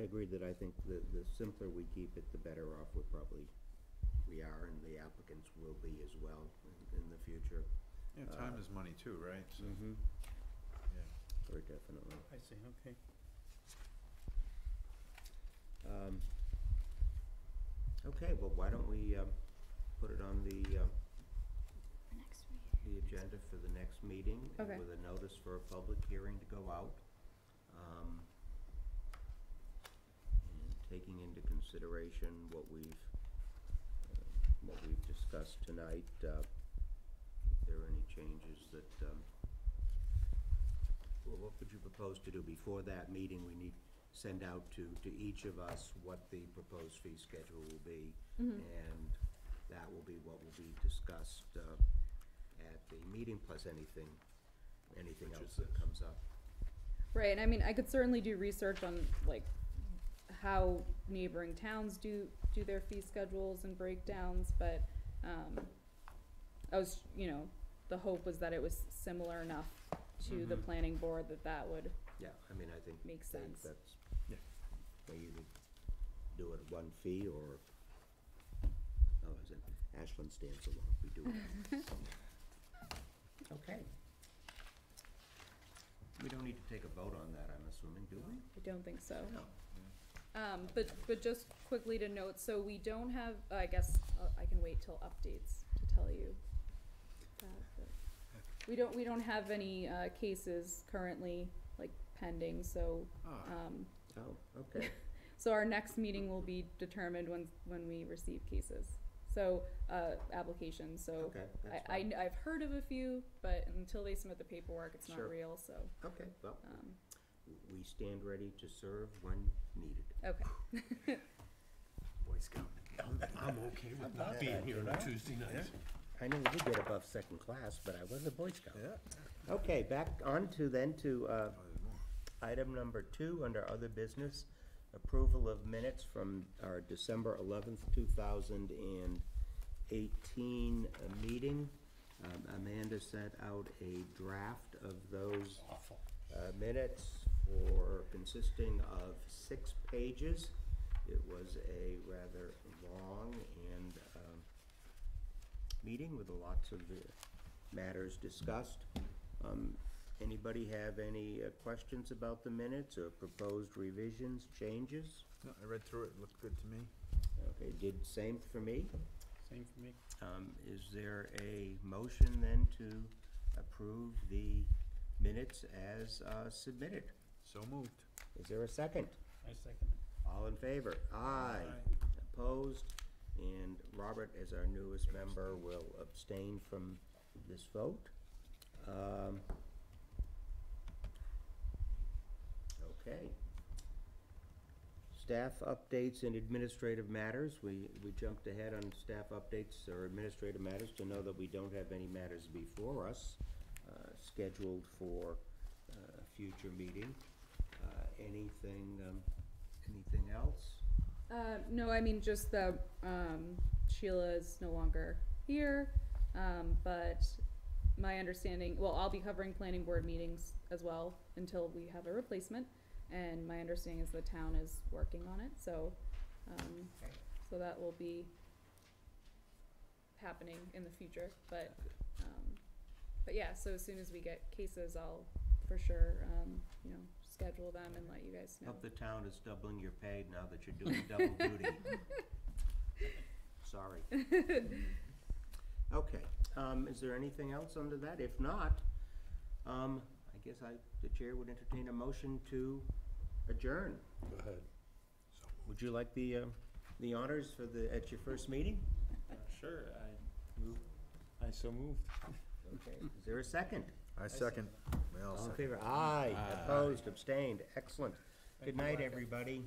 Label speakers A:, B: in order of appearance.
A: I agree that I think the, the simpler we keep it, the better off we probably, we are, and the applicants will be as well in, in the future.
B: Yeah, time
A: Uh,
B: is money too, right? So,
A: Mm-hmm.
B: yeah.
A: Very definitely.
C: I see, okay.
A: Um, Okay, well, why don't we, um, put it on the, um,
D: Next week.
A: the agenda for the next meeting. and
D: Okay.
A: With a notice for a public hearing to go out. um, and Taking into consideration what we've, uh, what we've discussed tonight, uh, if there are any changes that, um, well, what would you propose to do? Before that meeting, we need, send out to, to each of us what the proposed fee schedule will be. And that will be what will be discussed, uh, at the meeting, plus anything, anything
B: Which
A: else
B: is
A: that
B: this.
A: comes up.
E: Right, and I mean, I could certainly do research on like how neighboring towns do, do their fee schedules and breakdowns, but, um, I was, you know, the hope was that it was similar enough to the
B: Mhm.
E: planning board that that would
A: Yeah, I mean, I think,
E: make
A: think
E: sense.
A: that's,
B: Yeah.
A: they either do it one fee or, oh, is it, Ashland stands alone, we do it. Okay. We don't need to take a vote on that, I'm assuming, do we?
E: I don't think so.
A: No.
E: Um, but, but just quickly to note, so we don't have, I guess, uh, I can wait till updates to tell you. that, but We don't, we don't have any, uh, cases currently, like, pending, so,
B: Ah,
E: um,
A: Oh, okay.
E: so our next meeting will be determined when, when we receive cases. So, uh, applications, so
A: Okay, that's
E: I, I,
A: fine.
E: have heard of a few, but until they submit the paperwork, it's
A: Sure.
E: not real, so,
A: Okay, well,
E: um,
A: we stand ready to serve when needed.
E: okay.
B: Boy Scout.
F: I'm okay with not being here on a Tuesday night.
A: I know we did get above second class, but I was a Boy Scout.
B: Yeah.
A: Okay, back on to then to, uh,
B: Oh, there's more.
A: Item number two, under other business, approval of minutes from our December eleventh, two thousand and eighteen uh, meeting. Um, Amanda sent out a draft of those
F: Awful.
A: uh, minutes for, consisting of six pages. It was a rather long and, um, meeting with lots of uh, matters discussed. Um, Anybody have any uh, questions about the minutes or proposed revisions, changes?
B: No, I read through it, it looked good to me.
A: Okay, did same for me.
C: Same for me.
A: Um, Is there a motion then to approve the minutes as uh, submitted?
B: So moved.
A: Is there a second?
C: I second it.
A: All in favor? Aye. Opposed? And Robert, as our newest member, will abstain from this vote. Um, Okay. Staff updates and administrative matters. We, we jumped ahead on staff updates or administrative matters to know that we don't have any matters before us uh, scheduled for uh, a future meeting. Uh, Anything, um, anything else?
E: Uh, no, I mean, just that, um, Sheila is no longer here, um, but my understanding, well, I'll be covering planning board meetings as well until we have a replacement, and my understanding is the town is working on it, so, um,
A: Okay.
E: so that will be happening in the future, but, um, but yeah, so as soon as we get cases, I'll for sure, um, you know, schedule them and let you guys know.
A: Hope the town is doubling your pay now that you're doing double duty. Sorry. Okay, um, is there anything else under that? If not, um, I guess I, the chair would entertain a motion to adjourn.
F: Go ahead.
A: Would you like the, uh, the honors for the, at your first meeting?
C: Sure, I, I so moved.
A: Okay, is there a second?
B: I second. We all
A: All in
B: second.
A: favor? Aye,
B: Aye.
A: opposed, abstained, excellent. Good night, everybody.